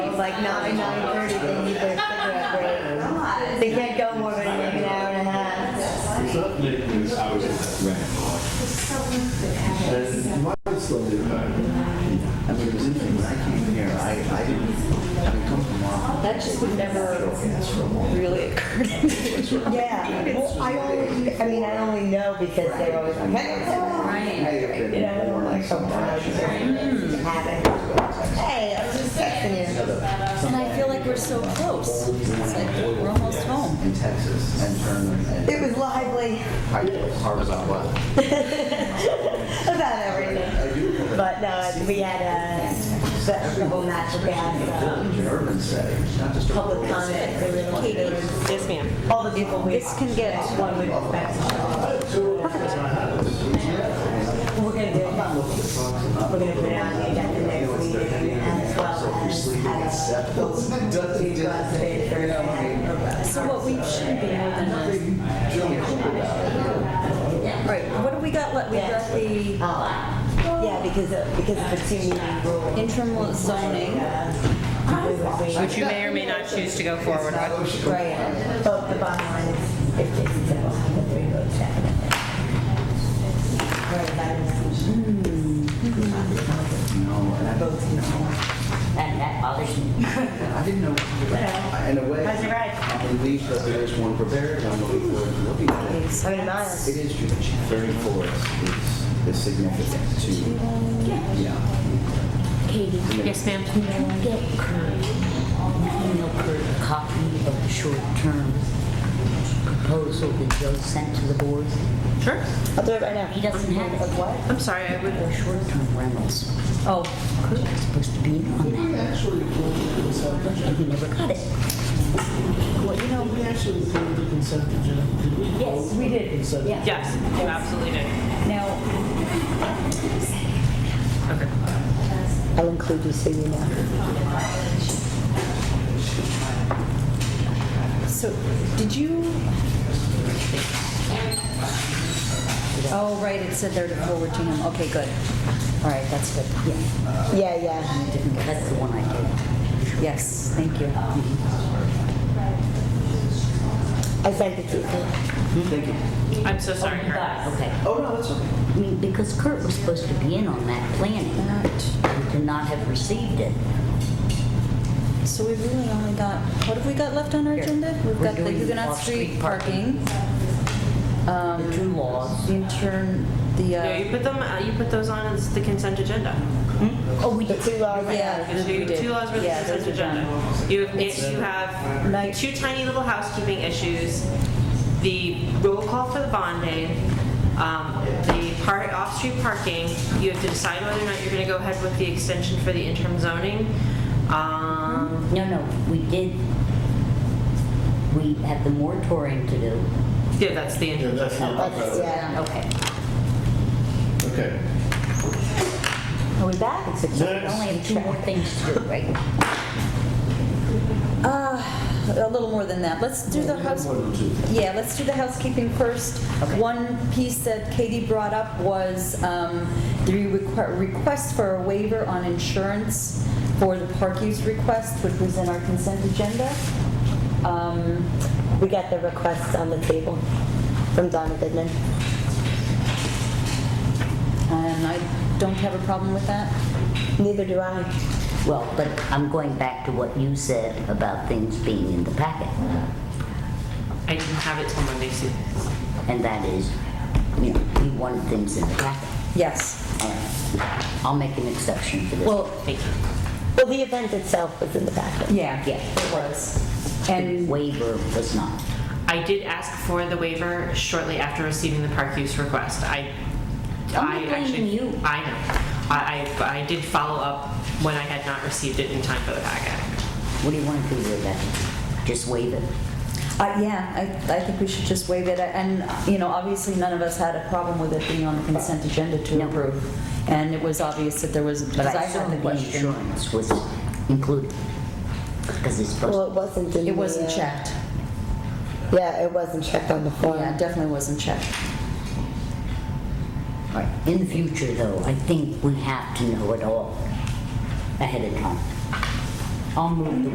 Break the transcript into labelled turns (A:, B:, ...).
A: like nine, nine thirty, they need their cigarette break. They can't go more than like an hour and a half.
B: It's not making this hour.
C: Right.
B: And why it's slowly back?
D: I mean, the reason when I came here, I, I didn't, having come from Oahu,
E: That just would never really occur to me.
A: Yeah, well, I only, I mean, I only know because they're always like, hey,
D: I have been
A: you know,
D: born
A: like
D: in some
A: sometimes
D: fashion.
A: it happens. Hey, I was just texting you.
E: And I feel like we're so close. It's like we're almost home.
D: in Texas and Germany and
A: It was lively
D: I was hard about what?
A: about everything.
D: I do from
A: But no, we had a vegetable natural gas,
D: an
A: um,
D: urban setting, not just a rural
A: public comment, they were located.
E: Yes, ma'am.
A: All the people we.
E: This can get-
A: One would expect. We're gonna do it. We're gonna put it on the agenda next meeting as well as. have a full review of it for that.
E: So what we should be more than that. Right, what do we got left? We got the
A: Oh, Yeah, because of, because of the two meeting rule. Uh,
E: interim zoning.
F: Which you may or may not choose to go forward with.
A: Right, but the bottom line is, if Jason said, we'll have a three vote check. Right, that is.
D: No, and I both, you know,
G: That, that bothers me.
D: I didn't know what to do. I- In a way,
A: How's your ride?
D: I believe that there is one prepared, I'm looking forward to looking at it.
A: I mean, mine's.
D: It is huge. Thirty-four is, is significant to, yeah.
G: Katie,
F: Yes, ma'am.
G: you don't get current, you know, current copy of the short-term proposal that Joe sent to the board.
F: Sure.
A: I'll do it right now.
G: He doesn't have it.
A: What?
F: I'm sorry, I would.
G: The short-term rentals.
F: Oh,
G: Kurt was supposed to be on that.
B: Actually,
G: He never got it.
B: well, you know, we actually approved the consent agenda. Did we?
G: Yes, we did.
B: Consent.
G: Yeah.
F: yes, you absolutely did.
G: Now,
F: Okay.
A: I'll include you so you know.
E: So, did you? Oh, right, it said there to forward to him. Mm-hmm. Okay, good. All right, that's good. Yeah,
A: Yeah, yeah.
G: that's the one I Mm-hmm.
E: yes, thank you.
A: I sent it to you.
D: Thank you.
F: I'm so sorry,
G: did.
F: Kurt.
G: Okay.
D: Oh, no, that's okay.
G: I mean, because Kurt was supposed to be in on that planning, and to not have received it.
E: So we really only got, what have we got left on our
G: Here.
E: agenda? We've
G: We're
E: got the
G: doing
E: Huguenot
G: off-street
E: Street parking,
G: The two laws.
E: the intern, the,
F: No,
E: uh,
F: you put them, uh, you put those on as the consent agenda.
G: Oh, we
A: The
G: did.
A: two large.
E: yeah.
F: It's
E: we
F: your
E: did.
F: two laws with the
E: Yeah, those
F: consent
E: are done.
F: agenda. You have, you have
E: Night-
F: two tiny little housekeeping issues, the roll call for the bonding, um, the part, off-street parking, you have to decide whether or not you're gonna go ahead with the extension for the interim zoning. Um,
G: No, no, we did, we have the moratorium to do.
F: yeah, that's the
B: Yeah,
F: interim.
B: that's not
A: That's,
B: bad.
A: yeah.
G: Okay.
B: Okay.
A: Are we back?
G: We only have two more things to do, right?
E: Uh, a little more than that. Let's do the house.
B: One or two.
E: Yeah, let's do the housekeeping first. One piece that Katie brought up was um, the requ- request for a waiver on insurance for the park use request, which was in our consent agenda. Um,
A: We got the request on the table from Donna Goodman.
E: And I don't have a problem with that.
A: Neither do I.
G: Well, but I'm going back to what you said about things being in the packet.
F: I didn't have it till Monday, Sue.
G: And that is, you know, you wanted things in the packet.
E: Yes.
G: All right. I'll make an exception for this.
E: Well,
F: Thank you.
A: Well, the event itself was in the packet.
E: yeah,
G: Yeah.
E: it was.
G: The
E: And
G: waiver was not.
F: I did ask for the waiver shortly after receiving the park use request. I,
G: I'm not
F: I
G: blaming
F: actually,
G: you.
F: I know. I, I, I did follow up when I had not received it in time for the packet.
G: What do you want to do with that? Just waive it?
E: Uh, yeah, I, I think we should just waive it, and, you know, obviously, none of us had a problem with it being on the consent agenda to
G: No.
E: approve. And it was obvious that there was,
G: But
E: because I
G: I
E: had
G: assume
E: the
G: the
E: question.
G: insurance was included, because it's
A: Well,
G: supposed,
A: it wasn't in the.
E: It wasn't
A: uh,
E: checked.
A: Yeah, it wasn't checked on the form.
E: Yeah, it definitely wasn't checked.
G: Right. in the future though, I think we have to know it all ahead of time. I'll move the